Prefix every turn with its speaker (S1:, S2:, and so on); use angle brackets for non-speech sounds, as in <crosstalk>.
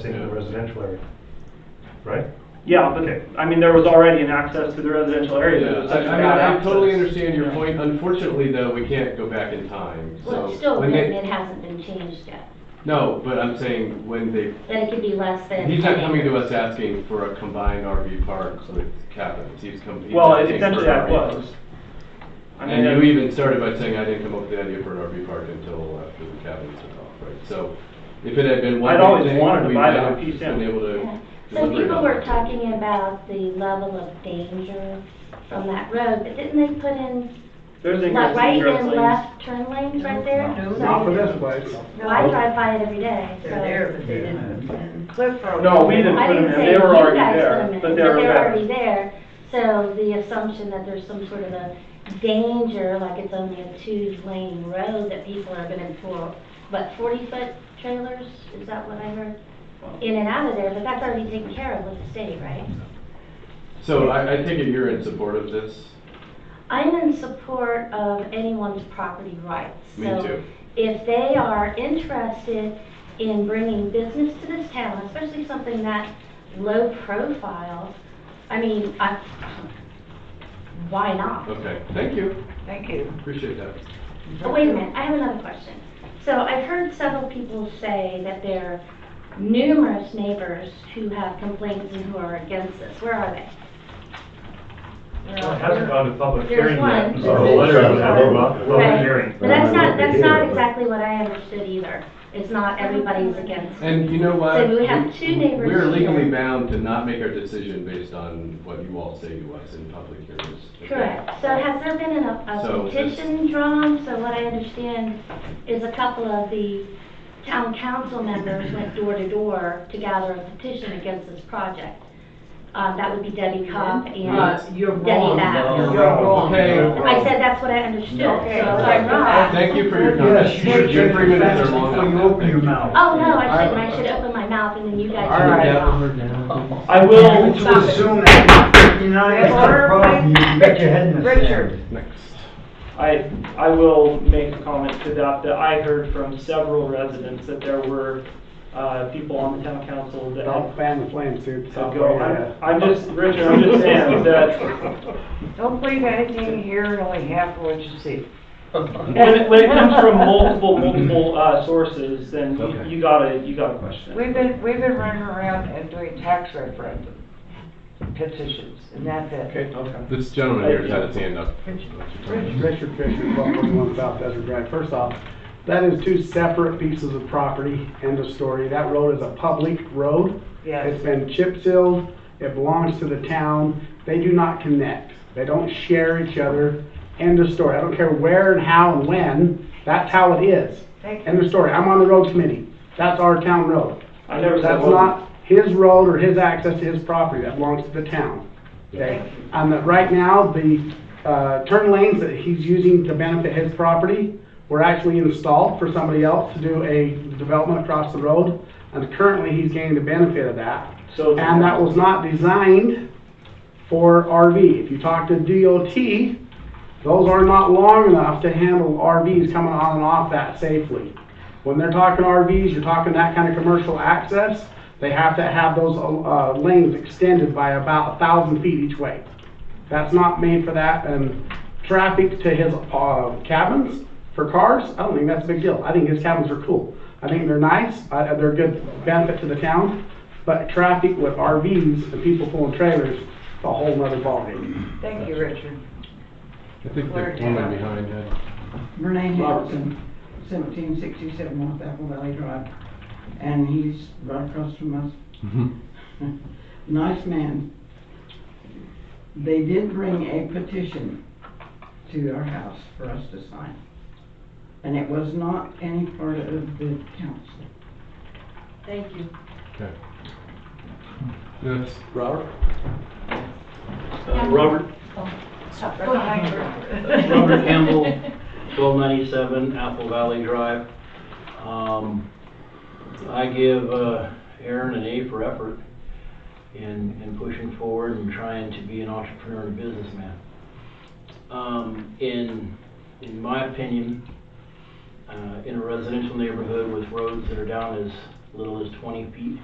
S1: Same in the residential area, right?
S2: Yeah, but, I mean, there was already an access to the residential area. but it
S3: Yeah,
S2: was
S3: I,
S2: such
S3: I
S2: bad
S3: mean, I totally
S2: access.
S3: understand your point, unfortunately though, we can't go back in time, so.
S4: Well, it's still,
S3: when
S4: then
S3: they-
S4: it hasn't been changed yet.
S3: No, but I'm saying when they,
S4: Then it could be less than.
S3: he's not coming to us asking for a combined RV park with cabins, he's coming.
S2: Well, it- essentially that was. I mean,
S3: And you
S2: that-
S3: even started by saying I didn't come up with the idea for an RV park until after the cabins took off, right? So if it had been one.
S2: I'd always
S3: thing,
S2: wanted to
S3: we
S2: buy
S3: might
S2: that
S3: have
S2: piece
S3: Been
S2: in.
S3: able
S4: Yeah.
S3: to.
S4: So
S3: deliberate
S4: people
S3: on
S4: were
S3: that.
S4: talking about the level of danger on that road, but didn't they put in,
S2: There's
S4: like,
S2: increased
S4: right
S2: indirect
S4: and
S2: lanes.
S4: left turn lanes right there?
S5: No.
S1: Not for this place.
S4: No, I drive by it every day, so.
S5: They're there, but they didn't intend.
S4: We're for.
S2: No, we didn't
S4: I
S2: put them in.
S4: didn't say
S2: They were
S4: you
S2: already
S4: guys put
S2: there,
S4: them in,
S2: but they were there.
S4: already there. So the assumption that there's some sort of a danger, like it's only a two-lane road that people are gonna pull, but forty-foot trailers, is that what I heard? In and out of there, but that's already taken care of with the state, right?
S3: So I, I take it you're in support of this?
S4: I'm in support of anyone's property rights.
S3: Me
S4: So
S3: too.
S4: If they are interested in bringing business to this town, especially something that low profile, I mean, I, why not?
S3: Okay, thank you,
S5: Thank you.
S3: appreciate that.
S4: But wait a minute, I have another question. So I've heard several people say that there are numerous neighbors who have complaints and who are against this. Where are they?
S1: Well, it hasn't gone to public
S4: There's
S1: hearing
S4: one.
S1: yet. Oh,
S4: There's
S1: so
S4: a
S1: the letter
S4: big
S1: hasn't
S4: one.
S1: gone to public
S4: Right.
S1: hearing.
S4: But that's not, that's not exactly what I understood either. It's not everybody's against it.
S3: And you know what?
S4: So we have two neighbors
S3: We're legally
S4: here.
S3: bound to not make our decision based on what you all say to us in public hearings. okay?
S4: Correct. So has there been an- a
S3: So
S4: a petition drawn? So what I understand is a couple of the town council members went door to door to gather a petition against this project. Um, That would be Debbie Cobb
S5: Uh,
S4: and
S5: You're
S4: Debbie
S5: wrong.
S4: Back.
S5: You're wrong.
S3: Okay.
S4: I said that's what I understood, so
S5: Okay.
S4: if I'm wrong.
S3: Thank you for your
S6: Yes,
S3: comments.
S6: you should
S3: Your
S6: check
S3: three
S6: your
S3: minutes
S6: facts
S3: are long
S6: before you
S3: enough.
S6: open
S3: Thank
S6: your
S3: you.
S6: mouth.
S4: Oh, no, I shouldn't. I should open my mouth and then you guys.
S6: All right.
S4: should go.
S2: I
S6: Well,
S2: will,
S6: to assume that fifty-nine is the
S5: Order,
S6: problem, you can bet your head in the sand.
S5: Richard.
S3: Next.
S2: I, I will make a comment to that, that I heard from several residents that there were, uh, people on the town council that
S7: Don't
S2: had
S7: fan the flames here.
S2: to go. I'm- I'm just, Richard, I'm just
S3: <laughs>
S2: saying that
S5: Don't believe anything you hear and only half of what you see.
S2: when, it- when it comes from multiple, multiple, uh, sources, then
S3: Okay.
S2: you, you gotta, you gotta question. it.
S5: We've been, we've been running around and doing tax referendum petitions, and that's it.
S2: Okay.
S3: This gentleman here has had his hand up.
S7: Richard Fisher, twelve forty-one South Desert Drive. First off, that is two separate pieces of property, end of story. That road is a public road.
S5: Yes.
S7: It's been chip sealed, it belongs to the town. They do not connect. They don't share each other, end of story. I don't care where and how and when, that's how it is.
S5: Thank
S7: End of story. I'm on the road committee. That's our town road.
S2: I never said.
S7: That's
S2: one.
S7: not his road or his access to his property, that belongs to the town. Okay, and that right now, the, uh, turn lanes that he's using to benefit his property were actually installed for somebody else to do a development across the road, and currently he's gaining the benefit of that.
S2: So-
S7: And that was not designed for RV. If you talk to DOT, those are not long enough to handle RVs coming on and off that safely. When they're talking RVs, you're talking that kind of commercial access, they have to have those, uh, lanes extended by about a thousand feet each way. That's not made for that, and traffic to his, uh, cabins for cars, I don't think that's a big deal. I think his cabins are cool. I think they're nice, uh, they're a good benefit to the town, but traffic with RVs and people pulling trailers, it's a whole nother ballgame.
S5: Thank you, Richard.
S3: I think the woman behind had.
S8: Renee Harrison, seventeen sixty-seven North Apple Valley Drive, and he's right across from us. <laughs> Nice man. They did bring a petition to our house for us to sign, and it was not any part of the council.
S5: Thank you.
S3: Okay. Yes.
S7: Robert?
S4: Yeah.
S9: Uh, Robert,
S5: Go ahead.
S9: Robert Campbell, twelve ninety-seven Apple Valley Drive. Um, I give uh, Aaron an A for effort in, in pushing forward and trying to be an entrepreneur and businessman. Um, in, in my opinion, uh, in a residential neighborhood with roads that are down as little as twenty feet,